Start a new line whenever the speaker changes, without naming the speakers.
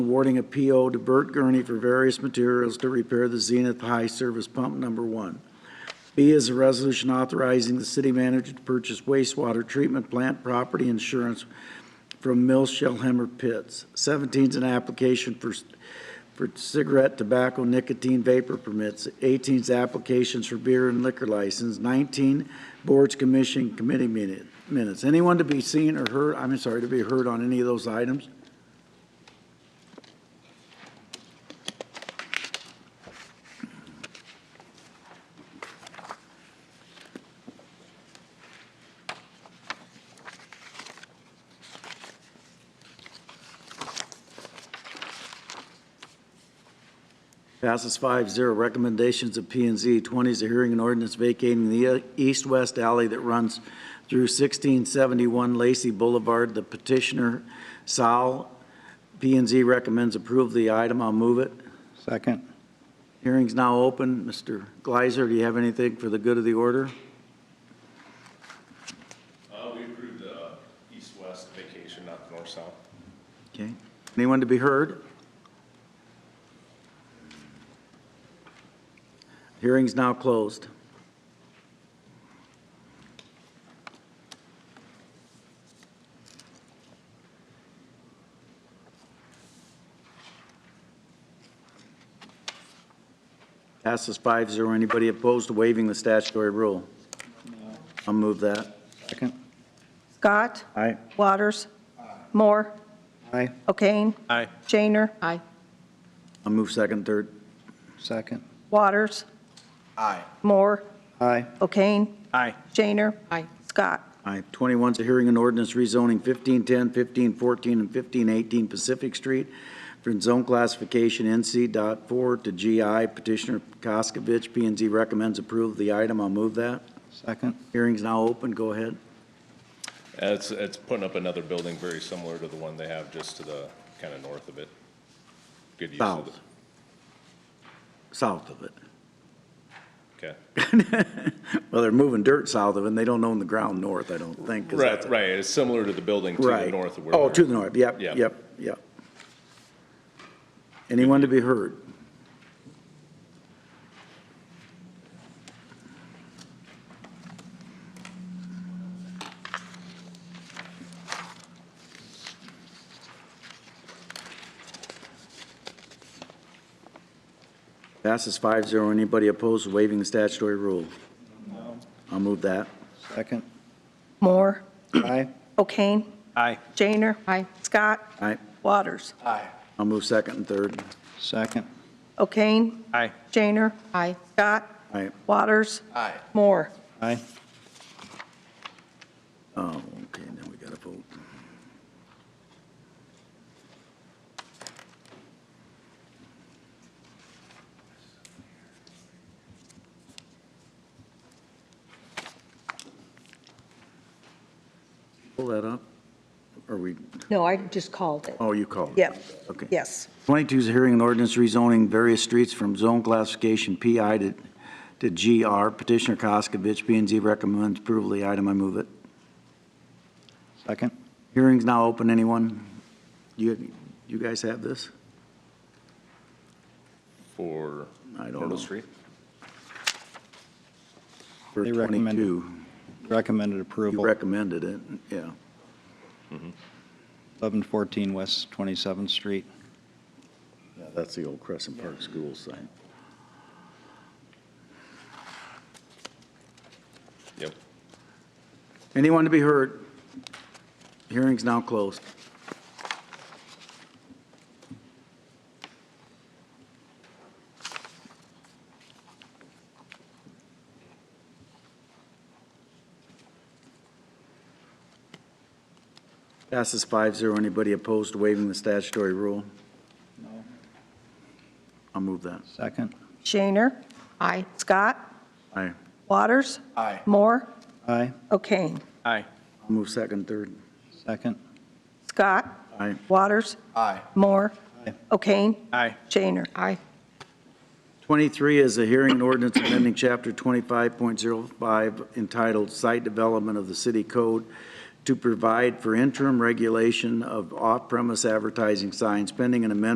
awarding a PO to Burt Gurney for various materials to repair the Zenith High Service Pump Number One. B is a resolution authorizing the city manager to purchase wastewater treatment plant property insurance from Mill Shellhammer Pits. Seventeen is an application for, for cigarette, tobacco, nicotine vapor permits. Eighteen is applications for beer and liquor license. Nineteen, boards, commission, committee minute- minutes. Anyone to be seen or heard, I'm sorry, to be heard on any of those items? Passes five zero. Recommendations of P and Z. Twenty is a hearing and ordinance vacating the uh, east-west alley that runs through sixteen seventy-one Lacey Boulevard. The petitioner, Sal, P and Z recommends approval of the item. I'll move it.
Second.
Hearing's now open. Mr. Gleiser, do you have anything for the good of the order?
Uh, we approved the uh, east-west vacation, not the north-south.
Okay. Anyone to be heard? Hearing's now closed. Passes 5-0. Anybody opposed to waiving the statutory rule? I'll move that.
Second.
Scott.
Aye.
Waters. Moore.
Aye.
O'Kane.
Aye.
Shaner.
Aye.
I'll move second, third.
Second.
Waters.
Aye.
Moore.
Aye.
O'Kane.
Aye.
Shaner.
Aye.
Scott.
Aye. 21's a hearing and ordinance rezoning 1510, 1514, and 1518 Pacific Street from zone classification NC dot four to GI. Petitioner Koskovich, p and Z recommends approval of the item. I'll move that.
Second.
Hearing's now open. Go ahead.
It's, it's putting up another building very similar to the one they have just to the, kind of north of it. Good use of it.
South. South of it.
Okay.
Well, they're moving dirt south of it, and they don't own the ground north, I don't think. 'cause that's-
Right, right, it's similar to the building to the
Right.
north of where.
Oh,
we're-
to the north. Yep,
Yeah.
yep, yep. Anyone to be heard? Passes 5-0. Anybody opposed to waiving the statutory rule? No. I'll move that.
Second.
Moore.
Aye.
O'Kane.
Aye.
Shaner.
Aye.
Scott.
All right,
Waters.
I'll move second and third.
Second.
O'Kane.
Aye.
Shaner.
Aye.
Scott.
All right,
Waters.
Aye.
Moore.
Aye.
Oh, okay, now we gotta vote. Pull that up, or we,
No, I just called it.
oh, you called it.
Yep.
Okay.
Yes.
22 is a hearing and ordinance rezoning various streets from zone classification PI to, to GR. Petitioner Koskovich, p and Z recommends approval of the item. I move it.
Second.
Hearing's now open, anyone? You, you guys have this?
For
I don't know.
Myrtle Street.
For
They recommend it.
22,
Recommended
you
approval.
recommended it, yeah.
1114 West 27th Street.
Yeah, That's the old Crescent Park School site.
Yep.
Anyone to be heard? Hearing's now closed. Passes 5-0. Anybody opposed to waiving the statutory rule? No. I'll move that.
Second.
Shaner.
Aye.
Scott.
Aye.
Waters.
Aye.
Moore.
Aye.
O'Kane.
Aye.
Move second, third.
Second.
Scott.
Aye.
Waters.
Aye.
Moore.
Aye.
O'Kane.
Aye.
Shaner.
Aye.
23 is a hearing and ordinance amending Chapter 25.05 entitled Site Development of the City Code to provide for interim regulation of off-premise advertising signs pending an amendment